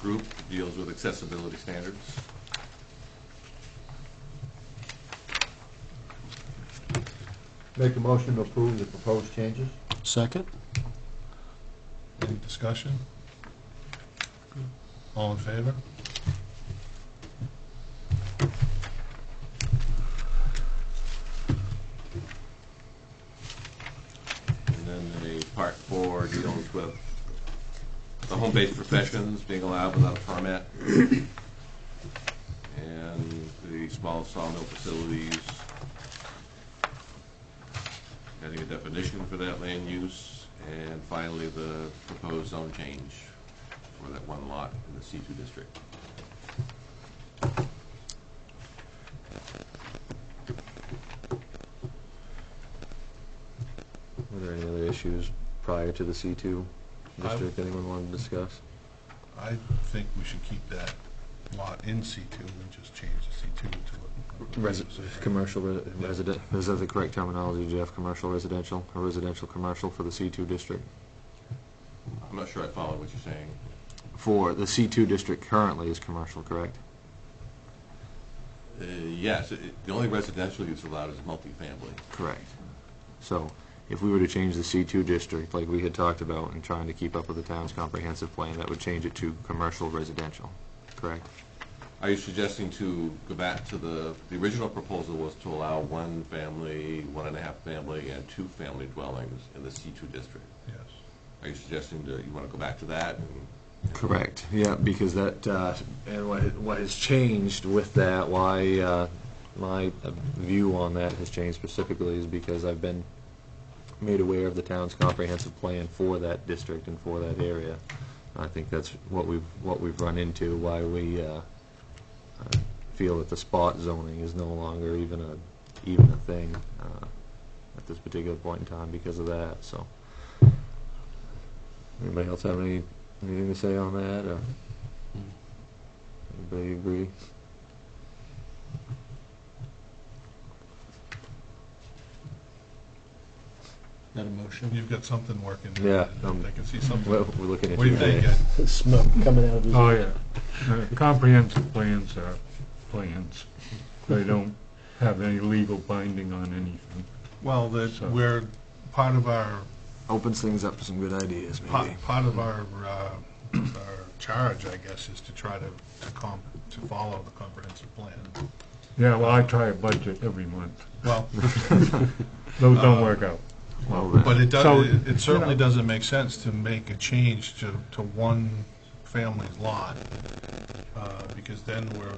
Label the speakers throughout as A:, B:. A: group that deals with accessibility standards.
B: Make a motion to approve the proposed changes?
C: Second?
D: Any discussion? All in favor?
A: And then the part four deals with the home-based professions being allowed without a permit. And the small sawmill facilities. Getting a definition for that land use. And finally, the proposed zone change for that one lot in the C two district.
E: Were there any other issues prior to the C2 district anyone wanted to discuss?
D: I think we should keep that lot in C2 and just change the C2 to a...
E: Resi- Commercial re- resident, is that the correct terminology, Jeff? Commercial residential, or residential commercial for the C2 district?
A: I'm not sure I followed what you're saying.
E: For, the C2 district currently is commercial, correct?
A: Uh, Yes, it- the only residential use allowed is multifamily.
E: Correct. So if we were to change the C2 district, like we had talked about, and trying to keep up with the town's comprehensive plan, that would change it to commercial residential, correct?
A: Are you suggesting to go back to the, the original proposal was to allow one family, one and a half family, and two family dwellings in the C2 district?
D: Yes.
A: Are you suggesting that you want to go back to that? and-
E: Correct, yeah, because that, uh, and what, what has changed with that, why, uh, my uh, view on that has changed specifically is because I've been made aware of the town's comprehensive plan for that district and for that area. I think that's what we've, what we've run into, why we, uh, uh, feel that the spot zoning is no longer even a, even a thing, uh, at this particular point in time because of that, so. Anybody else have any Anything to say on that, or? Anybody agree?
C: Not a motion?
D: You've got something working.
E: Yeah, um,
D: I can see
E: We're,
D: something.
E: we're looking at
D: What do
E: you
D: you think?
E: today.
D: Ed?
C: Smoke coming out of his...
F: Oh, yeah. Uh, Comprehensive plans are plans. They don't have any legal binding on anything.
D: Well, that,
F: So-
D: we're, part of our,
E: Opens things up to some good ideas, maybe.
D: part part of our, uh, our charge, I guess, is to try to, to com to follow the comprehensive plan.
F: Yeah, well, I try a budget every month.
D: Well,
F: Those
D: Uh,
F: don't work out.
E: Well,
D: But
E: then,
D: it
F: So,
D: does, it-
F: you
D: it certainly
F: know.
D: doesn't make sense to make a change to, to one family's lot, uh, because then we're,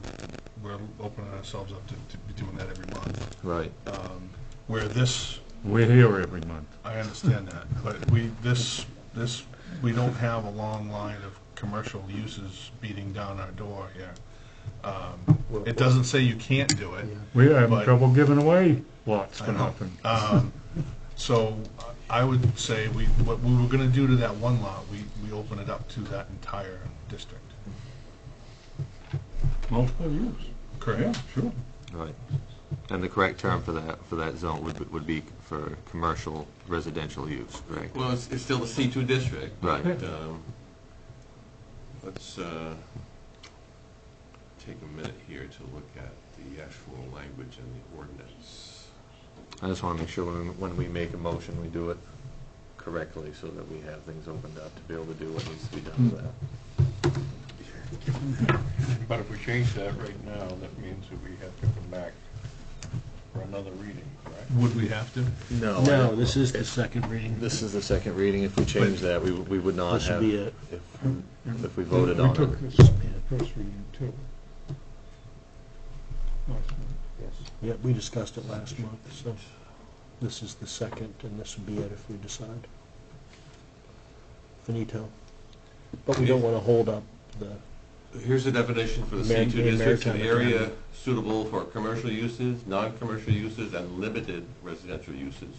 D: we're opening ourselves up to, to be doing that every month.
E: right,
D: Um, Where this,
F: We're here every month.
D: I understand that, but we, this, this, we don't have a long line of commercial uses beating down our door here. Um, It doesn't say you can't do it,
F: We have
D: But-
F: trouble giving away lots
D: I
F: for
D: know.
F: nothing.
D: Um, So I would say we, what we were gonna do to that one lot, we, we open it up to that entire district.
F: Multiple use.
D: Correct?
F: sure.
E: right. And the correct term for that, for that zone would, be- would be for commercial residential use, correct?
A: Well, it's, it's still the C2 district.
E: Right.
A: but, um, Let's uh, take a minute here to look at the actual language in the ordinance.
E: I just want to make sure when, when we make a motion, we do it correctly, so that we have things opened up to be able to do what needs to be done with that.
G: But if we change that right now, that means that we have to come back for another reading, correct?
D: Would we have to?
E: No.
C: No, this is the second reading.
E: This is the second reading. If we change that, we, we would not
C: This would
E: have,
C: be it.
E: if, if we voted on it.
F: this, first reading too.
C: Yeah, we discussed it last month, so this is the second, and this would be it if we decide. Finito. But we don't want to hold up the,
A: Here's the definition for the
C: Mar-
A: C2
C: in
A: district, an
C: Maritime
A: area
C: Academy.
A: suitable for commercial uses, non-commercial uses, and limited residential uses.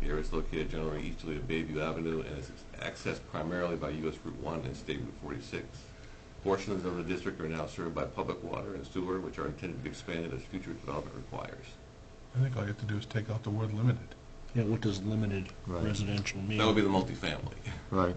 A: The area is located generally easterly of Bayview Avenue and is accessed primarily by US Route 1 and State Route 46. Portions of the district are now served by public water and sewer, which are intended to be expanded as future development requires.
D: I think all you have to do is take out the word limited.
C: yeah, what does limited
E: Right.
C: residential mean?
A: That would be the multifamily.
E: Right.